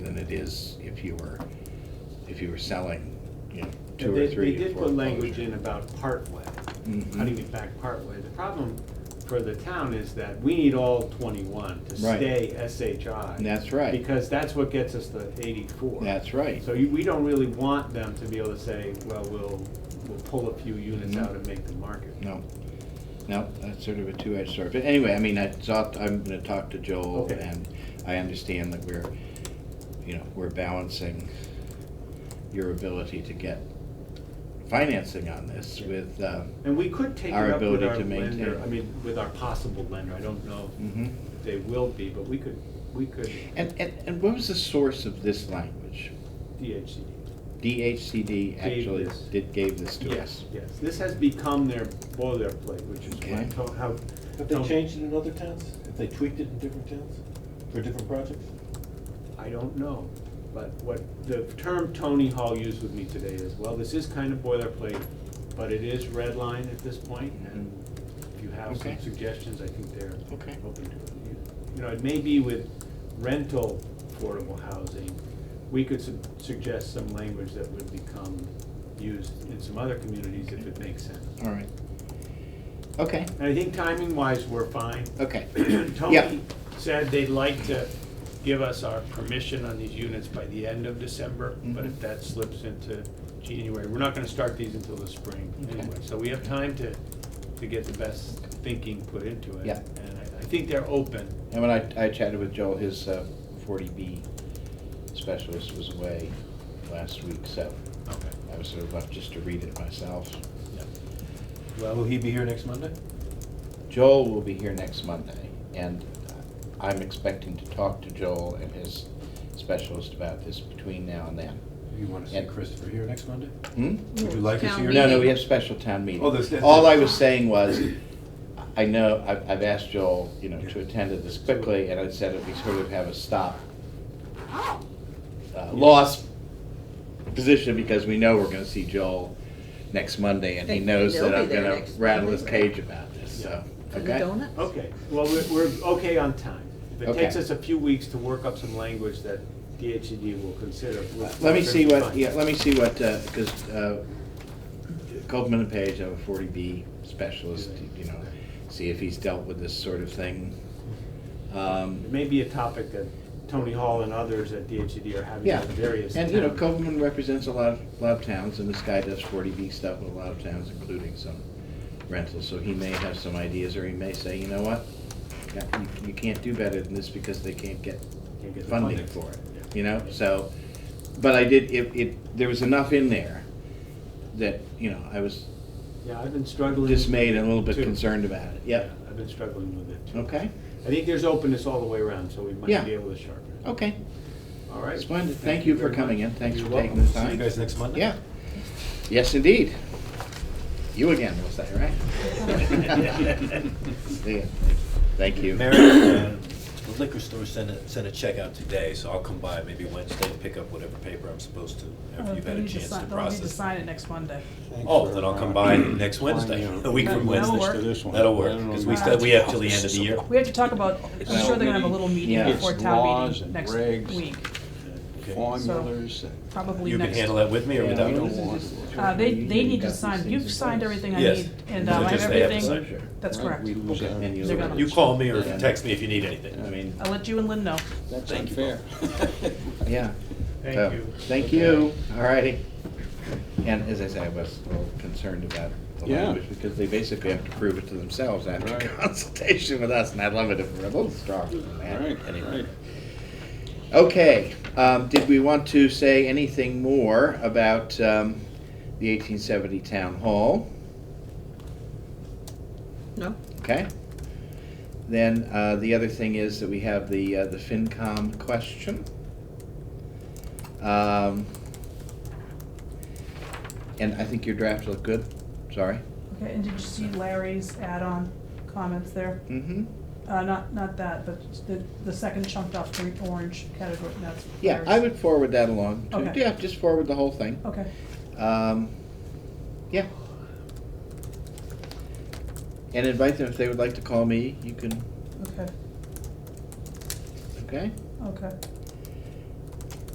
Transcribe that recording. it is if you were, if you were selling, you know, two And or They, three Mm-hmm. they to did four. put language in about partway, cutting it back partway. The problem for the town is that we need all twenty-one to Right. stay SHI. That's right. Because that's what gets us to eighty-four. That's right. So you, we don't really want them to be able to say, well, we'll, we'll pull a few units Mhm. out and make the market. No, no, that's sort of a two-edged sword. But anyway, I mean, I thought, I'm gonna talk to Joel Okay. and I understand that we're, you know, we're balancing your ability to get financing on this Yeah. with, uh, And we could take it Our up with ability our to maintain. lender, I mean, with our possible lender, I don't know mhm. if they will be, but we could, we could And, and, and what was the source of this language? DHCD. DHCD actually this. did, gave this to Yes, us. yes, this has become their boilerplate, which is Okay. what, to- how. Have they how- changed it in other towns? Have they tweaked it in different towns for different projects? I don't know, but what, the term Tony Hall used with me today is, well, this is kind of boilerplate, but it is red line at this point, and if you have some Mm-hmm. Okay. suggestions, I think they're Okay. open to it. You- You know, it may be with rental affordable housing, we could su- suggest some language that would become used in some other communities if it makes sense. All right. Okay, And I think timing wise, we're fine. okay. Yeah. Tony said they'd like to give us our permission on these units by the end of December, but if Mhm. that slips into January, we're not gonna start these until the spring Okay. anyway. So we have time to, to get the best thinking put into it. Yeah. And I, I think they're open. And when I, I chatted with Joel, his uh, forty B specialist was away last week, so Okay. I was sort of left just to read it myself. Well, Uh, will he be here next Monday? Joel will be here next Monday, and I'm expecting to talk to Joel and his specialist about this between now and then. You want to Yeah. see Christopher here next Monday? Hmm? Would you like us Town here? No, no, we meeting. have special town meeting. Oh, there's- there's- All I was saying was, I know, I've, I've asked Joel, you know, to attend to this quickly, and I said if we sort of have a stop, uh, loss position, because we know we're gonna see Joel next Monday, and he They- knows they'll that I'm be there gonna next rattle his Monday. cage about this, so, For the okay? donuts? Okay, well, we're, we're okay on time. If it Okay. takes us a few weeks to work up some language that DHED will consider. we'll- Let me see what, fine. yeah, let me see what, because, uh, Copeland and Page have a forty B specialist, you know, see if he's dealt with this sort of thing. Um, It Mm-hmm. may be a topic that Tony Hall and others at DHCD are having Yeah, in various and you know, towns. Copeland represents a lot of, lot of towns, and this guy does forty B stuff with a lot of towns, including some rentals, so he may have some ideas, or he may say, you know what? Yeah, You, you can't do better than this because they can't get Can't get the funding funding. for it, Yeah. you know, so, but I did, it, it, there was enough in there that, you know, I was Yeah, I've been struggling. dismayed and a little bit too. concerned about it, yep, Yeah, I've been struggling with it too. okay, I think there's openness all the way around, so we Yeah. might be able to sharpen it. okay, All right. splendid, thank you for very coming much. in, thanks You're for taking welcome. the See you time. guys next Monday? Yeah. Yes, indeed. You again, was that right? See ya. Thank you. Mary, uh, the liquor store sent a, sent a check out today, so I'll come by maybe Wednesday and pick up whatever paper I'm supposed to, after Uh, you've they'll had a need chance sign- to They'll need to process. sign it next Monday. Oh, then I'll uh, come by next Wednesday, a week from That'll Wednesday. work. That'll work, because we still, we have till the end of the year. We have to talk about, I'm sure they're gonna have a little meeting Yeah. before It's town laws meeting and next regs. week, Okay. formulas probably You can next. handle that with me or Yeah, without we me? don't want to- Uh, they, they need Got to these sign, things in you've signed place. everything I Yes. need, and So um, I have just they have to everything, sign. that's Right, correct. We lose out. And you They're look- gonna- You call me or Yeah. text me if you need anything. I mean, I'll let you and Lynn know. That's Thank you. unfair. yeah. So, Thank you. Thank you, all righty. And as I say, I was a little concerned about the Yeah. language, because they basically have to prove it to themselves after Right. consultation with us, and I'd love it if we're a little stronger than that. Right, Anyway. right. Okay, um, did we want to say anything more about, um, the eighteen seventy town hall? No? Okay? Then, uh, the other thing is that we have the, uh, the FinCom question. Um, and I think your drafts look good, sorry. Okay, and did you see Larry's add-on comments there? Hmm? Mm-hmm, Uh, not, not that, but the, the second chunked off green, orange category, that's. yeah, Larry's. I would forward that along to, Okay. yeah, just forward the whole thing. Okay, Um, yeah. And invite them if they would like to call me, you can, okay, okay? okay.